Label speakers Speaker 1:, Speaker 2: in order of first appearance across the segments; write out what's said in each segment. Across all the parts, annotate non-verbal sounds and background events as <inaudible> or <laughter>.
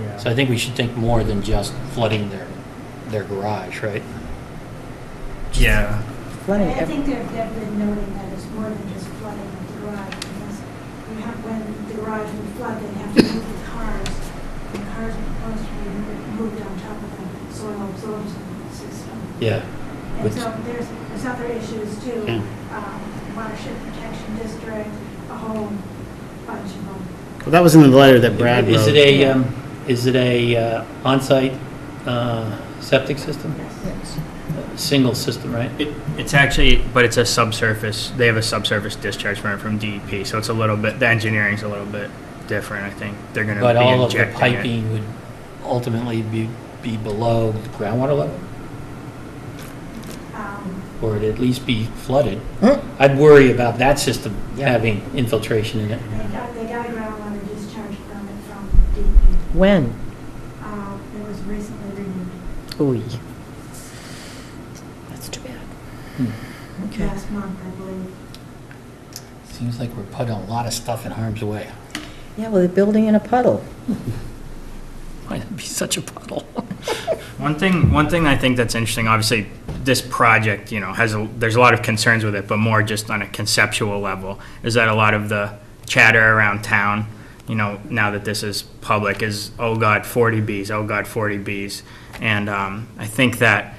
Speaker 1: Yeah.
Speaker 2: So I think we should think more than just flooding their, their garage, right?
Speaker 1: Yeah.
Speaker 3: Flooding
Speaker 4: I think
Speaker 3: every,
Speaker 4: they're, they've been noting that it's more than just flooding of the garage, because we have, when the garage would flood, they have to move the cars. The cars are supposed to be mo- moved on top of them, soil absorption system.
Speaker 2: Yeah.
Speaker 4: And so there's, there's other issues too,
Speaker 2: Yeah.
Speaker 4: um, watershed protection district, a whole bunch of them.
Speaker 5: Well, that was in the letter that Brad wrote.
Speaker 2: Is it a, um, is it a uh, onsite uh, septic system?
Speaker 3: yes.
Speaker 2: A Single system, right?
Speaker 1: It, it's actually, but it's a subsurface, they have a subsurface discharge permit from DEP, so it's a little bit, the engineering's a little bit different, I think. They're gonna be
Speaker 2: But all of the
Speaker 1: injecting it.
Speaker 2: piping would ultimately be, be below the groundwater level,
Speaker 4: Um,
Speaker 2: or it'd at least be flooded. I'd worry about that system having infiltration in it.
Speaker 4: They got, they got a groundwater discharge permit from DEP,
Speaker 3: When?
Speaker 4: um, it was recently renewed.
Speaker 3: Ooh. That's too bad. Hmm. Okay.
Speaker 4: Last month, I believe.
Speaker 2: Seems like we're putting a lot of stuff in harm's way.
Speaker 3: Yeah, well, they're building in a <laughs> puddle.
Speaker 2: Why would be such a puddle?
Speaker 1: One thing, one thing I think that's interesting, obviously, this project, you know, has, a there's a lot of concerns with it, but more just on a conceptual level, is that a lot of the chatter around town, you know, now that this is public, is, oh God, 40Bs, oh God, 40Bs. And um, I think that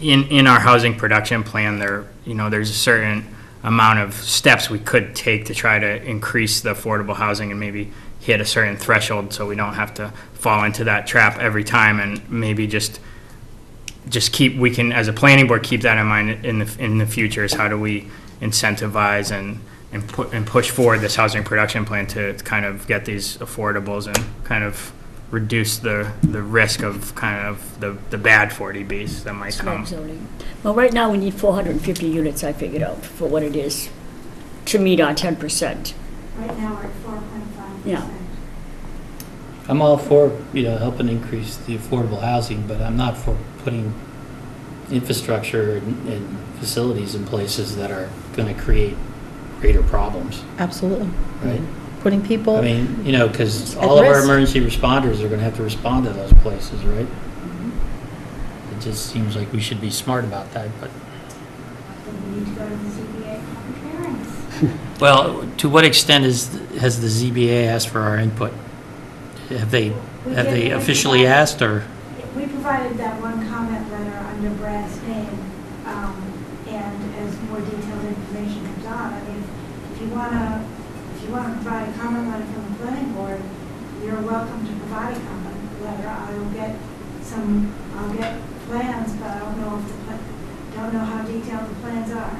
Speaker 1: in, in our housing production plan, there, you know, there's a certain amount of steps we could take to try to increase the affordable housing and maybe hit a certain threshold so we don't have to fall into that trap every time and maybe just, just keep, we can, as a planning board, keep that in mind in the, in the future is how do we incentivize and, and put, and push forward this housing production plan to kind of get these affordables and kind of reduce the, the risk of kind of the, the bad 40Bs that might come.
Speaker 6: Slab zoning. Well, right now, we need 450 units, I figured out, for what it is, to meet our 10%.
Speaker 4: Right now, we're at four point five
Speaker 6: Yeah.
Speaker 4: percent.
Speaker 2: I'm all for, you know, helping increase the affordable housing, but I'm not for putting infrastructure and and facilities in places that are going to create greater problems,
Speaker 3: Absolutely.
Speaker 2: right?
Speaker 3: Putting
Speaker 2: I
Speaker 3: people,
Speaker 2: mean, you know, because
Speaker 3: At
Speaker 2: all of our
Speaker 3: risk.
Speaker 2: emergency responders are going to have to respond to those places, right?
Speaker 3: Mm-hmm.
Speaker 2: It just seems like we should be smart about that, but.
Speaker 4: Then we need to go to the ZBA public hearings.
Speaker 2: Well, to what extent is, has the ZBA asked for our input? Have they,
Speaker 4: We
Speaker 2: have they
Speaker 4: did-
Speaker 2: officially asked, or?
Speaker 4: We provided that one comment letter under Brad's name, um, and as more detailed information comes on, I mean, if you wanna, if you wanna provide a comment letter from the planning board, you're welcome to provide a comment letter. I will get some, I'll get plans, but I don't know if the, pla- don't know how detailed the plans are.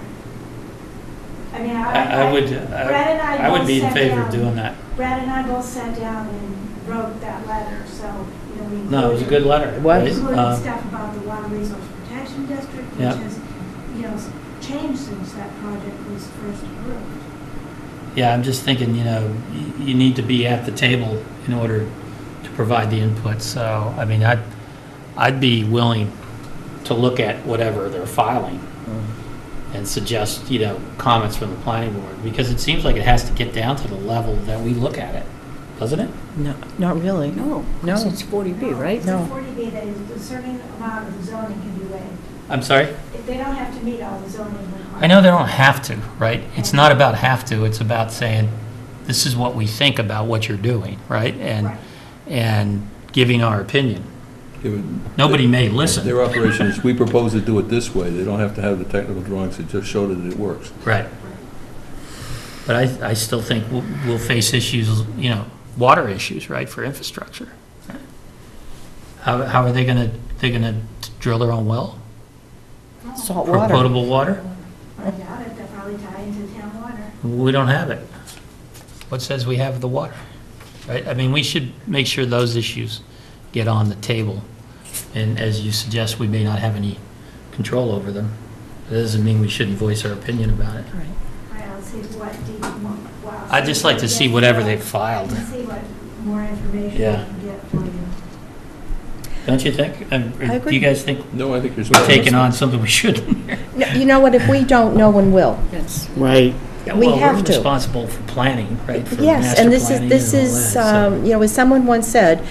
Speaker 4: I mean, I.
Speaker 2: I, I would, uh,
Speaker 4: Brad and I
Speaker 2: I would be in
Speaker 4: both sat
Speaker 2: favor of
Speaker 4: down.
Speaker 2: doing that.
Speaker 4: Brad and I both sat down and wrote that letter, so, you know, we.
Speaker 2: No, it was a good
Speaker 4: included-
Speaker 2: letter.
Speaker 3: What?
Speaker 2: right?
Speaker 4: Including
Speaker 2: Um,
Speaker 4: stuff about the Water Resource Protection District, which
Speaker 2: Yeah.
Speaker 4: has, you know, s- changed since that project was first approved.
Speaker 2: Yeah, I'm just thinking, you know, y- you need to be at the table in order to provide the input, so, I mean, I'd, I'd be willing to look at whatever they're filing
Speaker 3: um,
Speaker 2: and suggest, you know, comments from the planning board, because it seems like it has to get down to the level that we look at it, doesn't it?
Speaker 3: no, not really.
Speaker 6: No. 'cause
Speaker 3: No.
Speaker 6: It's 40B, right?
Speaker 4: It's
Speaker 3: No.
Speaker 4: a 40B that is, a certain amount of zoning can be waived.
Speaker 2: I'm sorry?
Speaker 4: If They don't have to meet all the zoning requirements.
Speaker 2: I know they don't have to, right? It's not about have to, it's about saying, this is what we think about what you're doing, right? And,
Speaker 4: Right.
Speaker 2: and giving our opinion.
Speaker 7: They would-
Speaker 2: Nobody may listen.
Speaker 7: Their operation is, we propose to do it this way. They don't have to have the technical drawings. They just show that it works.
Speaker 2: Right. But I, I still think we'll, we'll face issues, you know, water issues, right, for infrastructure. How, how are they gonna, they gonna drill their own well?
Speaker 3: Salt
Speaker 2: For
Speaker 3: water.
Speaker 2: potable water?
Speaker 4: Oh, I doubt it, they'll probably tie into town water.
Speaker 2: We don't have it. What says we have the water? Right, I mean, we should make sure those issues get on the table. And as you suggest, we may not have any control over them. That doesn't mean we shouldn't voice our opinion about it.
Speaker 3: Right.
Speaker 4: I don't see what deep, wow.
Speaker 2: I'd just like to see whatever they filed.
Speaker 4: And see what more information we
Speaker 2: Yeah.
Speaker 4: can get for you.
Speaker 2: Don't you think? Um,
Speaker 3: I
Speaker 2: or Do
Speaker 3: agree.
Speaker 2: you guys think
Speaker 7: No, I think there's.
Speaker 2: we're taking on something we shouldn't?
Speaker 3: No, You know what, if we don't, no one will.
Speaker 6: Yes.
Speaker 5: <laughs> Right.
Speaker 2: Yeah,
Speaker 3: We
Speaker 2: well,
Speaker 3: have to.
Speaker 2: We're responsible for planning, right? for
Speaker 3: Yes,
Speaker 2: master
Speaker 3: and this is,
Speaker 2: planning
Speaker 3: this
Speaker 2: and all
Speaker 3: is,
Speaker 2: that, so-
Speaker 3: um, you know, as someone once said,